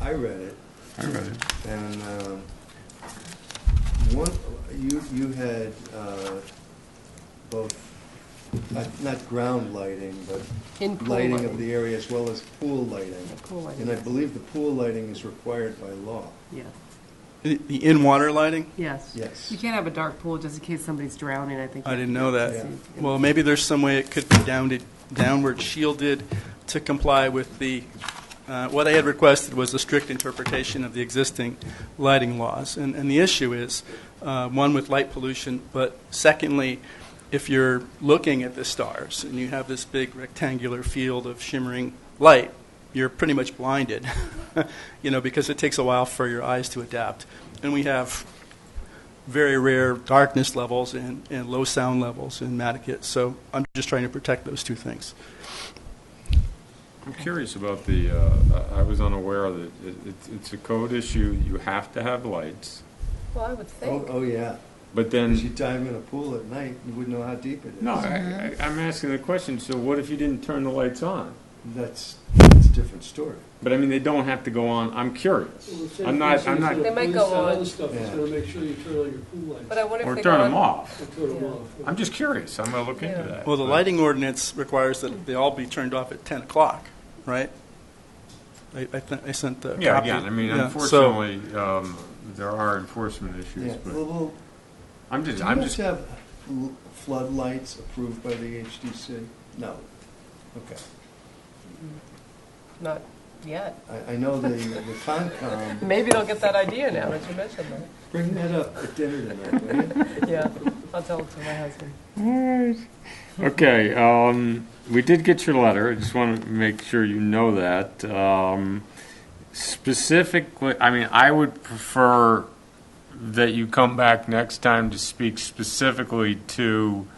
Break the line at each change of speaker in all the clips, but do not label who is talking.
read it,
I read it.
and um, one, you, you had uh, both, not- not ground lighting, but
In pool
lighting
lighting.
of the area as well as pool lighting.
Pool lighting,
And I
yes.
believe the pool lighting is required by law.
Yeah,
The the in-water lighting?
yes.
Yes.
You can't have a dark pool just in case somebody's drowning, I think.
I didn't know
Yeah.
that. Well, maybe there's some way it could be downed- downward shielded to comply with the, uh, what I had requested was a strict interpretation of the existing lighting laws. And and the issue is, uh, one, with light pollution, but secondly, if you're looking at the stars and you have this big rectangular field of shimmering light, you're pretty much blinded, you know, because it takes a while for your eyes to adapt. And we have very rare darkness levels and, and low sound levels in Mattakit. So I'm just trying to protect those two things.
I'm curious about the, uh, I I was unaware that it- it's- it's a code issue, you have to have lights,
Well, I would
Oh, oh, yeah.
but
If you
then,
dive in a pool at night, you wouldn't know how deep it is.
no, I- I- I'm asking the question, so what if you didn't turn the lights on?
That's, that's a different story.
But I mean, they don't have to go on, I'm curious. I'm not, I'm not,
They might go on.
Other stuff, it's
Yeah.
gonna make sure you turn all your pool lights.
But I wonder if
or
they
turn
go
them
on-
off.
Or turn them off.
I'm just curious, I'm going to look into
Yeah.
that.
Well, the lighting ordinance requires that they all be turned off at 10 o'clock, right? I, I, th- I sent the
Yeah,
copy.
again, I mean,
Yeah, so-
unfortunately, um, there are enforcement issues,
Yeah, well,
but
well,
I'm
do
just,
you
I'm
have
just,
to have l- floodlights approved by the HDC? No. Okay.
Not yet.
I, I know the, the Concom,
Maybe they'll get that idea now that you mentioned
bring that up at dinner tonight, will you?
that. Yeah, I'll tell it to my husband.
Okay, um, we did get your letter, I just want to make sure you know that. Um, Specifically, I mean, I would prefer that you come back next time to speak specifically to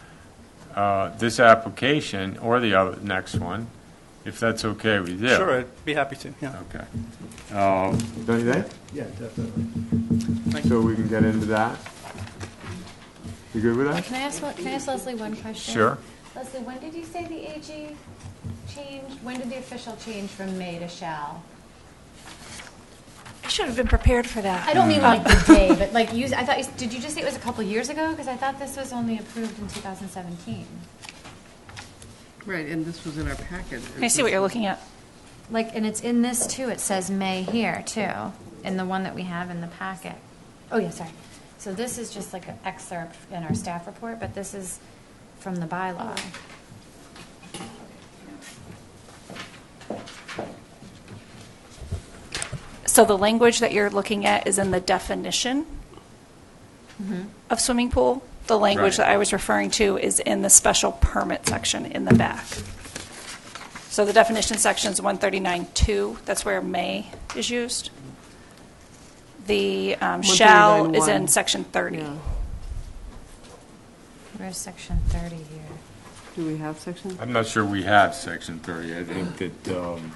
uh, this application or the other, next one, if that's okay with you.
Sure, I'd be happy to, yeah.
Okay. Um, Don't you think?
Yeah, definitely.
So we can get into that? You good with that?
Can I ask, one- can I ask Leslie one question?
Sure.
Leslie, when did you say the AG changed, when did the official change from may to shall?
I should have been prepared for
I
that.
don't mean like the day, but like you, I thought, you did you just say it was a couple years ago? Because I thought this was only approved in 2017.
Right, and this was in our packet.
Can I see what you're looking at?
Like, and it's in this too, it says may here too, in the one that we have in the packet. Oh, yeah, sorry. So this is just like an excerpt in our staff report, but this is from the bylaw.
So the language that you're looking at is in the definition of swimming pool. The language
Right.
that I was referring to is in the special permit section in the back. So the definition section is 139.2, that's where may is used. The um, shall is
139.1.
in section 30.
Yeah.
Where's section 30 here?
Do we have section?
I'm not sure we have section 30. I think that, um,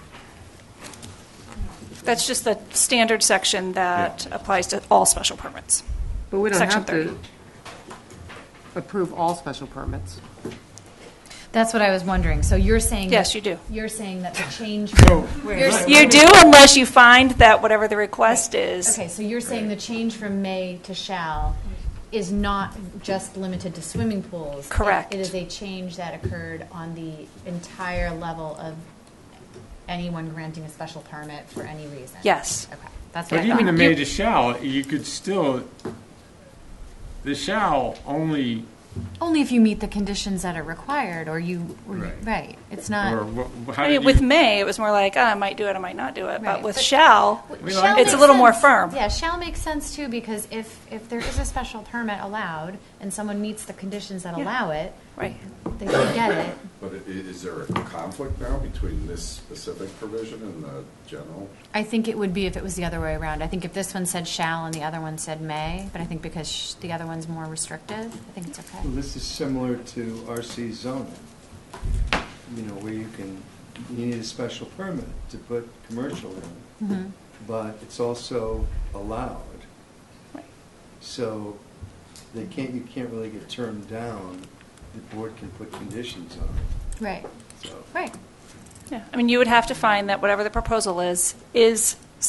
That's just the standard section that applies to all special permits.
But we don't
Section
have to approve all special permits.
That's what I was wondering. So you're saying.
Yes,
that-
you do.
You're saying that the change.
You're-
Right.
You do unless you find that whatever the request is.
Okay, so you're saying the change from may to shall is not just limited to swimming pools. It-
Correct.
It is a change that occurred on the entire level of anyone granting a special permit for any reason.
Yes.
Okay, that's what
but
I thought.
even the
You-
made a shall, you could still, the shall only,
Only if you meet the conditions that are required or you, or you-
Right.
right, it's
or
not.
wha- how
I
did
mean, with
you-
may, it was more like, ah, I might do it, I might not do it. But
Right,
with
but-
shall,
Well,
Shall
it's a
makes
little more
sense.
firm.
Yeah, shall makes sense too, because if, if there is a special permit allowed and someone meets the conditions that allow it,
Right.
they should get it.
But i- is there a conflict now between this specific provision and the general?
I think it would be if it was the other way around. I think if this one said shall and the other one said may, but I think because sh- the other one's more restrictive, I think it's okay.
Well, this is similar to RC zoning, you know, where you can, you need a special permit to put commercial in,
Mhm.
but it's also allowed.
Right.
So they can't, you can't really get turned down. The board can put conditions on it,
Right,
so.
right.
Yeah. I mean, you would have to find that whatever the proposal is, is